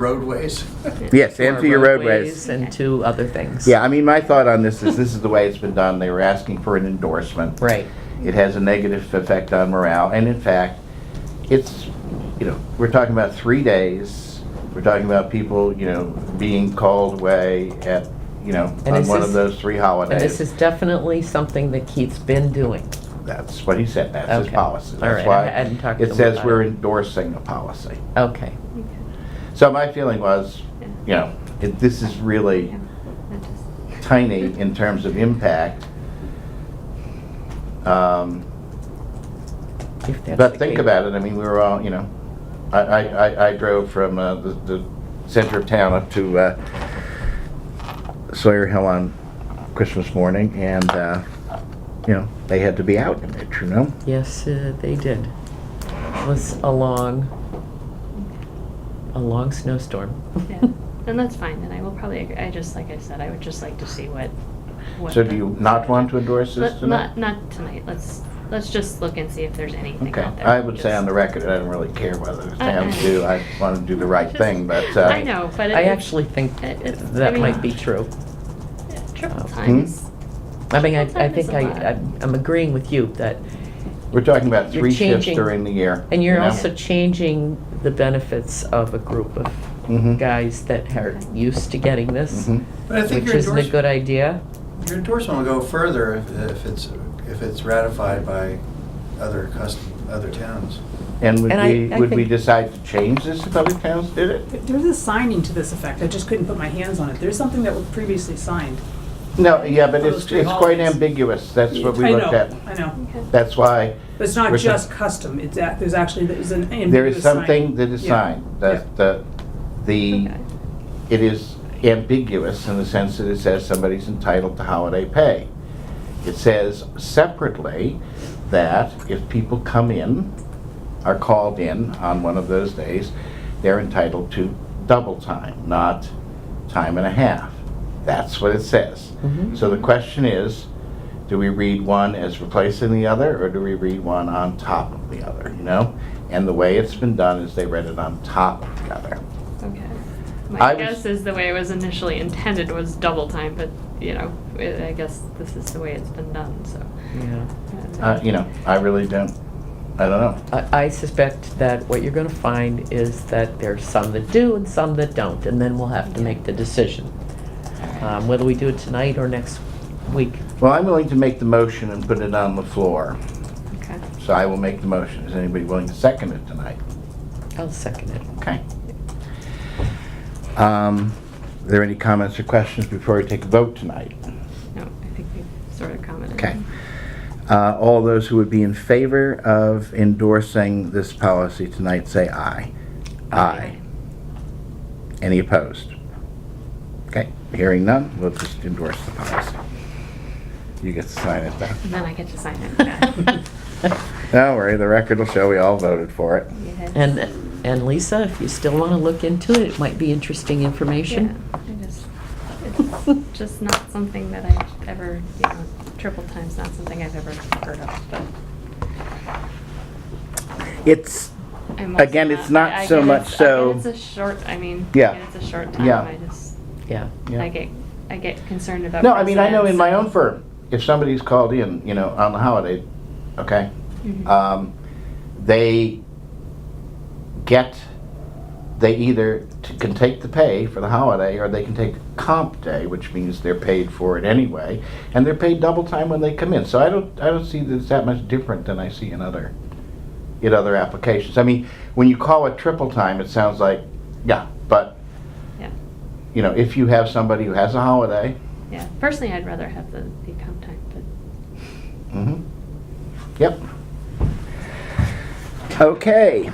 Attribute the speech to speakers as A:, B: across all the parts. A: roadways.
B: Yes,
C: to our
B: empty your roadways.
C: And to other things.
B: Yeah, I mean, my thought on this is, this is the way it's been done. They were asking for an endorsement.
C: Right.
B: It has a negative effect on morale, and in fact, it's, you know, we're talking about three days. We're talking about people, you know, being called away at, you know,
C: And
B: on
C: this
B: one of
C: is-
B: those three holidays.
C: And this is definitely something that Keith's been doing.
B: That's what he said, that's his
C: Okay.
B: policy.
C: All
B: That's
C: right, I
B: why
C: hadn't talked to
B: it
C: him
B: says
C: about
B: we're
C: it.
B: endorsing a policy.
C: Okay.
B: So my feeling was, you know, it- this is really tiny in terms of impact. Um,
C: if that's
B: But
C: the
B: think
C: case.
B: about it, I mean, we were all, you know, I, I, I- I drove from uh, the, the center of town up to uh, Sawyer Hill on Christmas morning, and, uh, you know, they had to be out in it, you know?
C: Yes, uh, they did. It was a long, a long snowstorm.
D: Yeah, and that's fine, and I will probably, agree. I just, like I said, I would just like to see what. what
B: So
D: the-
B: do you not want to endorse this
D: Let-
B: tonight?
D: Not, not tonight, let's, let's just look and see if there's anything
B: Okay,
D: out there.
B: I would say
D: Just-
B: on the record, I don't really care whether the
D: I-
B: towns do, I want to do the right
D: Just-
B: thing, but. uh,
D: I know, but. it-
C: I actually think
D: it- it's- I
C: that
D: mean,
C: might be true.
D: Triple
C: Hmm?
D: times.
C: I mean, I, I
D: Sometimes
C: think
D: it's a
C: I,
D: lot.
C: I'm- I'm agreeing with you that,
B: We're talking about
C: You're
B: three shifts
C: changing-
B: during the year.
C: and
B: you
C: you're
B: know?
C: also changing the benefits of a group of
B: Mhm.
C: guys that are used to getting this,
B: Mhm.
A: But I think
C: which
A: your
C: isn't a good
A: endorsement,
C: idea.
A: your endorsement will go further if, if it's, if it's ratified by other custom, other towns.
B: And would
C: And I-
B: we,
C: I
B: would we
C: think-
B: decide to change this if other towns did it?
E: There's a signing to this effect, I just couldn't put my hands on it. There's something that was previously signed.
B: No, yeah, but it's,
E: Those three
B: it's quite
E: holidays.
B: ambiguous, that's what we
E: I
B: looked
E: know,
B: at.
E: I know,
D: Okay.
B: That's why
E: but it's not
B: Where's the-
E: just custom, it's, a- there's actually, there's an ambiguous sign.
B: there is something that is
E: Yeah.
B: signed, that, the, the,
D: Okay.
B: it is ambiguous in the sense that it says somebody's entitled to holiday pay. It says separately that if people come in, are called in on one of those days, they're entitled to double time, not time and a half. That's what it says.
A: Mm-hmm.
C: Mhm.
B: So the question is, do we read one as replacing the other, or do we read one on top of the other, you know? And the way it's been done is they read it on top of the other.
D: Okay.
B: I
D: My
B: was-
D: guess is the way it was initially intended was double time, but, you know, I I guess this is the way it's been done, so.
C: Yeah.
B: Uh, you know, I really don't, I don't know.
C: I I suspect that what you're gonna find is that there's some that do and some that don't, and then we'll have to make the decision. Um, Whether we do it tonight or next week.
B: Well, I'm willing to make the motion and put it on the floor,
D: Okay.
B: so I will make the motion. Is anybody willing to second it tonight?
C: I'll second it.
B: Okay. Um, Are there any comments or questions before we take a vote tonight?
D: No, I think we sort of commented.
B: Okay. Uh, All those who would be in favor of endorsing this policy tonight, say aye. Aye. Any opposed? Okay, hearing none, we'll just endorse the policy. You get to sign it then.
D: And then I get to sign it. Yeah.
B: Don't worry, the record will show we all voted for it.
D: Yeah.
C: And, and Lisa, if you still wanna look into it, it might be interesting
D: Yeah,
C: information.
D: I just, it's just not something that I've ever, you know, triple time's not something I've ever heard of, but
B: It's,
D: I'm also
B: Again, it's not
D: I- I
B: so
D: get
B: much
D: it's- I get
B: so-
D: It's a short, I mean,
B: Yeah.
D: yeah, it's a short time,
B: Yeah.
D: I just,
C: Yeah.
B: Yeah.
D: I get, I get concerned about.
B: no, I mean, I know in my own
D: precedents.
B: firm, if somebody's called in, you know, on the holiday, okay,
D: Mhm.
B: um, they get, they either t- can take the pay for the holiday or they can take comp day, which means they're paid for it anyway, and they're paid double time when they come in. So I don't, I don't see that it's that much different than I see in other, in other applications. I mean, when you call it triple time, it sounds like, yeah, but,
D: Yeah.
B: you know, if you have somebody who has a holiday,
D: Yeah, personally, I'd rather have the, the comp time, but
B: Mhm. Yep. Okay.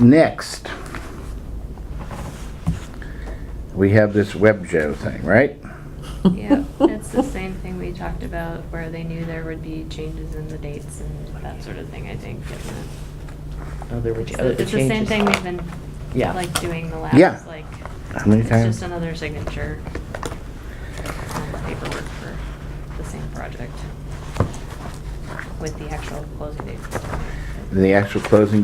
B: Next. We have this web show thing, right?
D: yeah, it's the same thing we talked about where they knew there would be changes in the dates and that sort of thing, I think. and that-
C: Other
D: It's
C: changes.
D: the it's the same thing we've been,
C: Yeah.
D: like, doing the
B: Yeah.
D: last, like,
B: How many
D: it's just
B: times?
D: another signature on the paperwork for the same project with the actual closing date.
B: the actual closing